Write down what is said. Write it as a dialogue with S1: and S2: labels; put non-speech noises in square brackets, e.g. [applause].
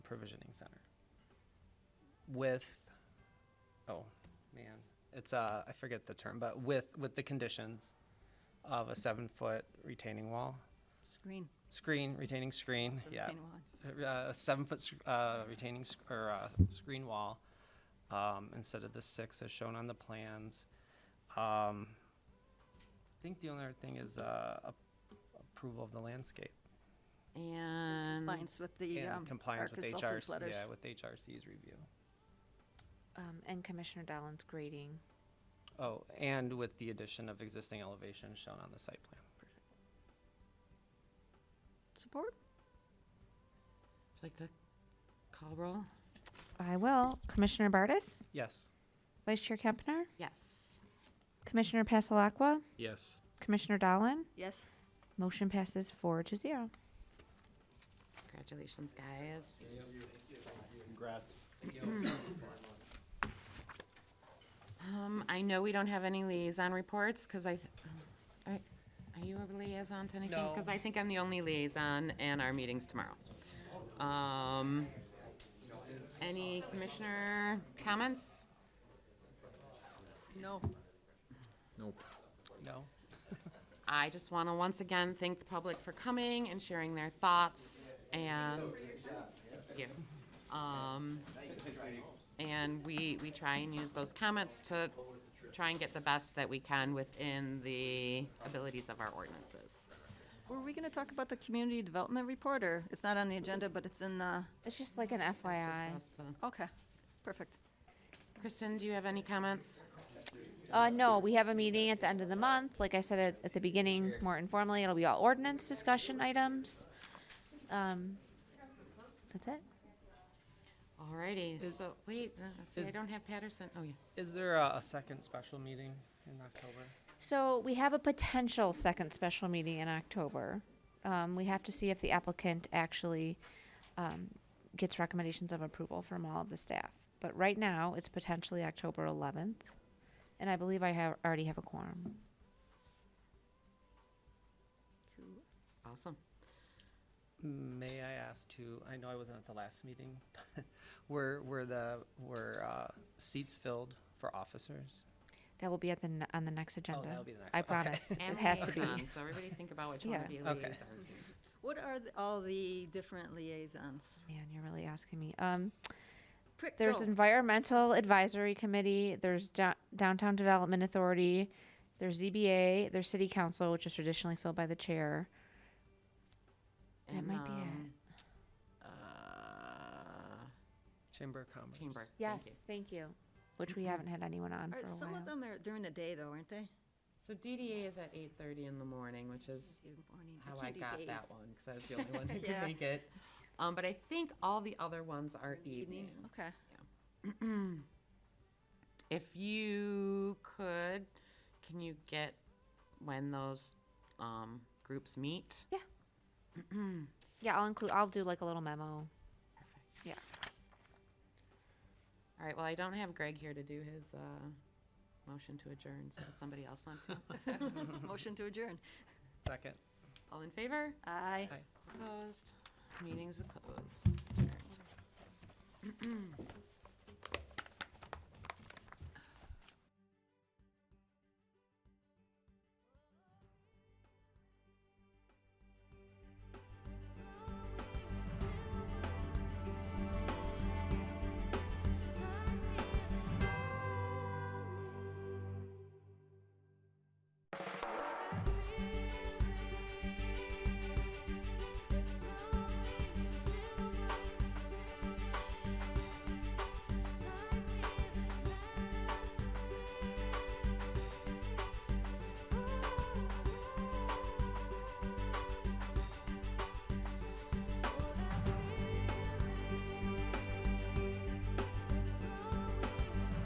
S1: Provisioning Center. With, oh, man, it's, uh, I forget the term, but with, with the conditions of a seven-foot retaining wall,
S2: Screen.
S1: screen, retaining screen, yeah.
S2: retaining wall.
S1: uh, a seven-foot uh, retaining, sc- or uh, screen wall um, instead of the six as shown on the plans. Um, I think the only other thing is uh, ap- approval of the landscape
S3: And,
S2: Compliance with the,
S1: and
S2: um, our
S1: compliance with
S2: consultant's
S1: HRC,
S2: letters.
S1: yeah, with HRC's review.
S3: um, and Commissioner Dolan's grading.
S1: Oh, and with the addition of existing elevations shown on the site plan.
S2: Support?
S3: Would you like to call roll? I will. Commissioner Bartis?
S1: Yes.
S4: Vice Chair Kempner,
S3: Yes.
S4: Commissioner Pasalakwa,
S5: Yes.
S4: Commissioner Dolan.
S2: Yes.
S4: Motion passes four to zero.
S3: Congratulations, guys.
S6: Congrats.
S3: Um, I know we don't have any liaison reports, because I, th- um, are are you a liaison to anything? Because
S1: No.
S3: I think I'm the only liaison, and our meeting's tomorrow. Um, any commissioner comments?
S2: No.
S5: Nope.
S1: No?
S3: I just want to once again thank the public for coming and sharing their thoughts and, thank you. Um, and we, we try and use those comments to try and get the best that we can within the abilities of our ordinances.
S2: Were we gonna talk about the community development report, or it's not on the agenda, but it's in, uh,
S4: It's just like an FYI.
S2: okay, perfect.
S3: Kristen, do you have any comments?
S4: Uh, no, we have a meeting at the end of the month. Like I said at, at the beginning, more informally, it'll be all ordinance discussion items. Um, that's it.
S3: Alrighty, so, wait, uh, see, I
S1: is-
S3: don't have Patterson, oh yeah.
S1: Is there a a second special meeting in October?
S4: So we have a potential second special meeting in October. Um, we have to see if the applicant actually um, gets recommendations of approval from all of the staff. But right now, it's potentially October 11th, and I believe I have already have a quorum.
S3: Awesome.
S1: May I ask to, I know I wasn't at the last meeting, but were, were the, were uh, seats filled for officers?
S4: That will be at the ne- on the next agenda.
S1: Oh, that'll be the next
S4: uh, I
S1: one. Okay.
S4: promise.
S3: And
S4: It has to be.
S3: liaison, So everybody think about which one to
S4: Yeah.
S3: be
S1: Okay.
S3: liaison to.
S2: What are the- all the different liaisons?
S4: Man, you're really asking me. Um,
S2: Prick,
S4: there's
S2: go.
S4: environmental advisory committee. There's Dow- downtown development authority. There's ZBA. There's city council, which is traditionally filled by the chair. That
S3: And,
S4: might be it.
S3: um, Uh,
S1: Chamber of Commerce.
S3: Chamber.
S4: Yes,
S3: thank you. Mm-hmm.
S4: thank you. Which we haven't had anyone on for a
S2: Are, some
S4: while.
S2: of them are during the day, though, aren't they?
S3: So DDA is at eight thirty in the morning, which is
S2: Good morning.
S3: how I
S2: can't do
S3: got that
S2: days.
S3: one, because I was the
S2: [laughs]
S3: only one who could
S2: Yeah.
S3: make it. Um, but I think all the other ones are evening.
S2: Evening, okay.
S3: [clears throat] If you could, can you get when those, um, groups meet?
S4: Yeah, I'll include, I'll do like a little memo. Yeah.
S3: All right, well, I don't have Greg here to do his, uh, motion to adjourn, so does somebody else want
S2: [laughs]
S3: to?
S2: Motion to adjourn.
S1: Second.
S3: All in favor?
S2: Aye.
S1: Aye.
S3: Opposed? Meeting's closed. Adjourned.